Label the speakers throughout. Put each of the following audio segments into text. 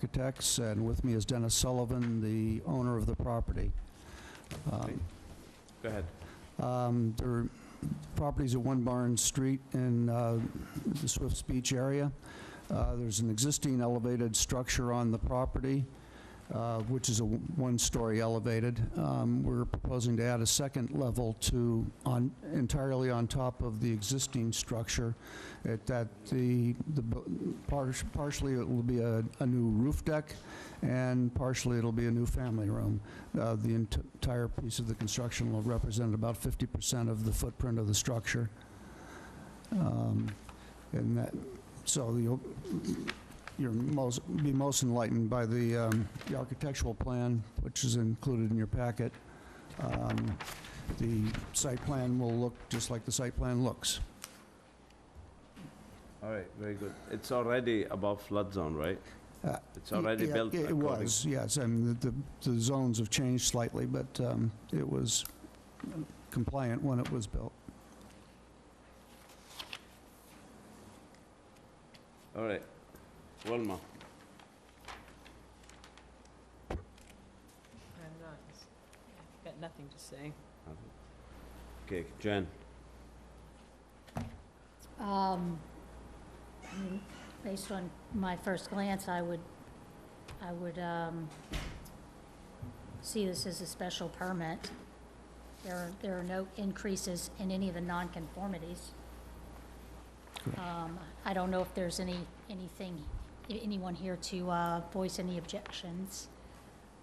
Speaker 1: Architects, and with me is Dennis Sullivan, the owner of the property. Um,
Speaker 2: Go ahead.
Speaker 1: um, Their properties at One Barn Street in uh, the Swifts Beach area. Uh, There's an existing elevated structure on the property, uh, which is a w- one-story elevated. Um, We're proposing to add a second level to, on, entirely on top of the existing structure, at that the, the bu- par- partially it will be a a new roof deck, and partially it'll be a new family room. Uh, The ent- entire piece of the construction will represent about 50% of the footprint of the structure. Um, And that, so you'll, you're most, be most enlightened by the, um, the architectural plan, which is included in your packet. Um, The site plan will look just like the site plan looks.
Speaker 2: All right, very good. It's already above flood zone, right?
Speaker 1: Uh,
Speaker 2: It's already
Speaker 1: Yeah,
Speaker 2: built
Speaker 1: It
Speaker 2: according-
Speaker 1: was, yes, and the, the zones have changed slightly, but um, it was compliant when it was built.
Speaker 2: All right. Wilma,
Speaker 3: I'm not, got nothing to say.
Speaker 2: okay, Jen,
Speaker 4: Um, I mean, Based on my first glance, I would, I would um, see this as a special permit. There are, there are no increases in any of the nonconformities.
Speaker 1: Correct.
Speaker 4: Um, I don't know if there's any, anything, a- anyone here to uh, voice any objections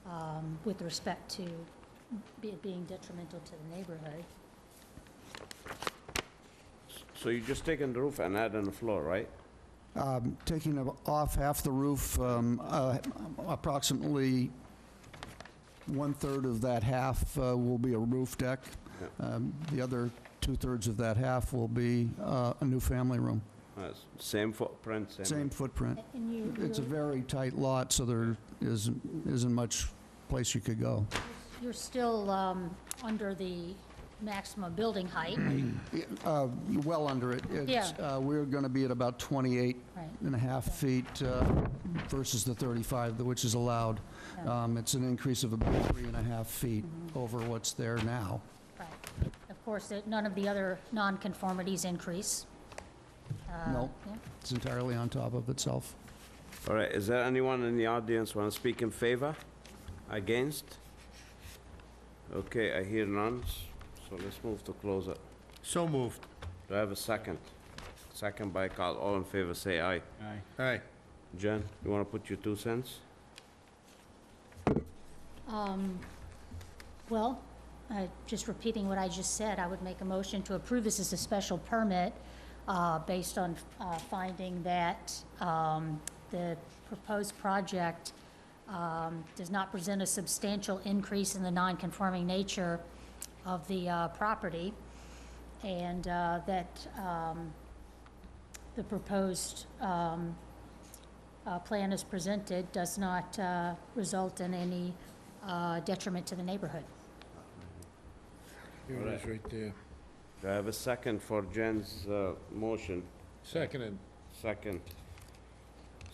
Speaker 4: um, with respect to it being detrimental to the neighborhood.
Speaker 2: so you just taking the roof and adding the floor, right?
Speaker 1: Um, Taking of- off half the roof, um, uh, approximately one-third of that half uh, will be a roof deck. Um, The other two-thirds of that half will be uh, a new family room.
Speaker 2: Uh, s- Same footprint, same...
Speaker 1: Same footprint.
Speaker 4: And you,
Speaker 1: It's a
Speaker 4: you're-
Speaker 1: very tight lot, so there isn't, isn't much place you could go.
Speaker 4: You're still um, under the maximum building height,
Speaker 1: Uh, Well under it. It's, uh, We're going to be at about 28
Speaker 4: right?
Speaker 1: and a half feet uh, versus the 35, which is allowed.
Speaker 4: Yeah. Mm-hmm.
Speaker 1: Um, It's an increase of about three and a half feet over what's there now.
Speaker 4: Right. Of course, that- none of the other nonconformities increase. Uh,
Speaker 1: No.
Speaker 4: yeah.
Speaker 1: It's entirely on top of itself.
Speaker 2: All right, is there anyone in the audience want to speak in favor? Against? Okay, I hear none, s- so let's move to close it.
Speaker 5: So moved.
Speaker 2: Do I have a second? Second by Carl, all in favor, say aye.
Speaker 5: Aye.
Speaker 2: Jen, you want to put your two cents?
Speaker 4: Um, Well, I- just repeating what I just said, I would make a motion to approve this as a special permit uh, based on uh, finding that um, the proposed project um, does not present a substantial increase in the nonconforming nature of the uh, property, and uh, that um, the proposed um, uh, plan as presented does not uh, result in any uh, detriment to the neighborhood.
Speaker 5: Here it is, right there.
Speaker 2: Do I have a second for Jen's uh, motion?
Speaker 5: Seconded.
Speaker 2: Second.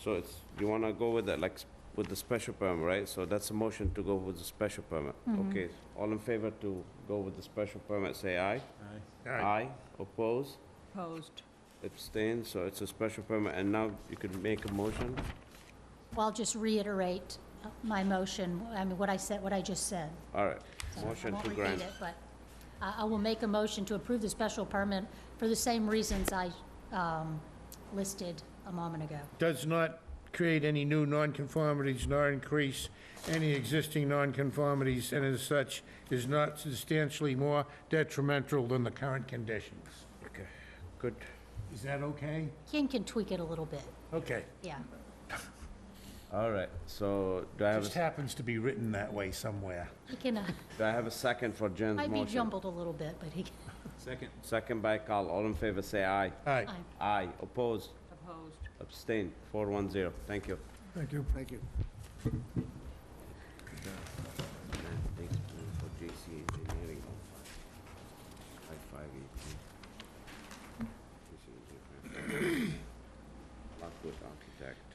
Speaker 2: So it's, you wanna go with that, like, s- with the special permit, right? So that's a motion to go with the special permit.
Speaker 4: Mm-hmm.
Speaker 2: Okay, all in favor to go with the special permit, say aye. Aye. Oppose,
Speaker 3: Opposed.
Speaker 2: abstain, so it's a special permit, and now you can make a motion?
Speaker 4: Well, I'll just reiterate uh, my motion, I mean, what I said, what I just said.
Speaker 2: All right,
Speaker 4: So
Speaker 2: motion to
Speaker 4: I won't
Speaker 2: grant.
Speaker 4: repeat it, but I I will make a motion to approve the special permit for the same reasons I um, listed a moment ago.
Speaker 5: Does not create any new nonconformities nor increase any existing nonconformities, and as such, is not substantially more detrimental than the current conditions.
Speaker 2: Okay, good.
Speaker 5: Is that okay?
Speaker 4: Ken can tweak it a little bit,
Speaker 5: Okay.
Speaker 4: yeah.
Speaker 2: All right, so do I have,
Speaker 5: Just
Speaker 2: a s-
Speaker 5: happens to be written that way somewhere.
Speaker 4: He can, uh,
Speaker 2: do I have a second for Jen's
Speaker 4: might be
Speaker 2: motion?
Speaker 4: jumbled a little bit, but he can.
Speaker 2: Second by Carl, all in favor, say aye.
Speaker 5: Aye.
Speaker 4: Aye.
Speaker 2: Aye, oppose,
Speaker 3: Opposed.
Speaker 2: abstain, four one zero, thank you.
Speaker 1: Thank you. Thank you.
Speaker 2: Thanks for JC Engineering on five, five five eighteen. Lockwood Architect.